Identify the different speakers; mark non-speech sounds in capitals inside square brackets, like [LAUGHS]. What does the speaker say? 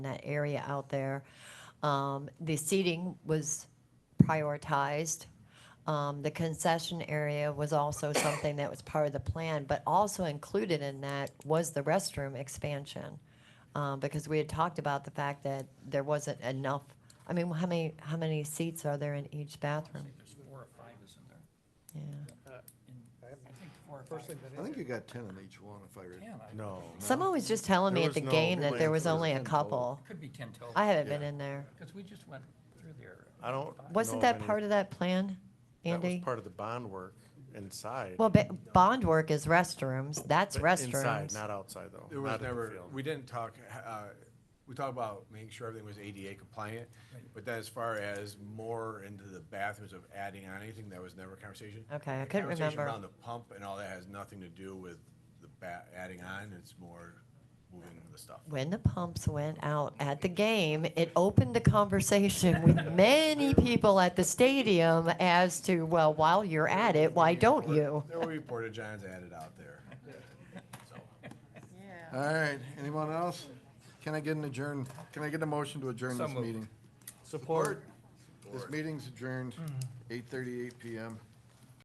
Speaker 1: that area out there. Um, The seating was prioritized. Um, The concession area was also something that was part of the plan, but also included in that was the restroom expansion. uh, Because we had talked about the fact that there wasn't enough, I mean, how many, how many seats are there in each bathroom?
Speaker 2: There's four or five, isn't there?
Speaker 1: Yeah.
Speaker 2: In- I think four or
Speaker 3: First
Speaker 2: five.
Speaker 3: thing that
Speaker 4: I think you
Speaker 3: is,
Speaker 4: got ten on each one if I read.
Speaker 2: Ten, I-
Speaker 4: No.
Speaker 1: Someone was just telling me
Speaker 4: There
Speaker 1: at the
Speaker 4: was no-
Speaker 1: game that there was
Speaker 4: there was
Speaker 1: only a
Speaker 4: ten total.
Speaker 1: couple.
Speaker 2: Could be ten total.
Speaker 1: I haven't been
Speaker 4: Yeah.
Speaker 1: in there.
Speaker 2: Because we just went through there.
Speaker 5: I don't.
Speaker 1: Wasn't
Speaker 5: know if
Speaker 1: that
Speaker 5: any-
Speaker 1: part of that plan,
Speaker 5: That was
Speaker 1: Andy?
Speaker 5: part of the bond work inside.
Speaker 1: Well, ba- bond work is restrooms. That's
Speaker 5: but Inside,
Speaker 1: restrooms.
Speaker 5: not outside though.
Speaker 6: There was
Speaker 5: not at the
Speaker 6: never,
Speaker 5: field.
Speaker 6: we didn't talk, uh, we talked about making sure everything was ADA compliant, but then as far as more into the bathrooms of adding on anything, that was never a conversation.
Speaker 1: Okay, I
Speaker 6: The
Speaker 1: couldn't
Speaker 6: Conversation
Speaker 1: remember.
Speaker 6: around the pump and all that has nothing to do with the ba, adding on, it's more moving the stuff.
Speaker 1: When the pumps went out at the game, it opened a conversation with
Speaker 5: [LAUGHS]
Speaker 1: many people at the stadium as to, well, while you're at it, why don't you?
Speaker 6: There will be porta johns added out there. So,
Speaker 4: All right, anyone else? Can I get an adjourn, can I get a motion to adjourn
Speaker 2: So
Speaker 4: this
Speaker 2: moved.
Speaker 4: meeting?
Speaker 5: Support.
Speaker 2: Mm-hmm.
Speaker 4: This meeting's adjourned, eight thirty-eight PM.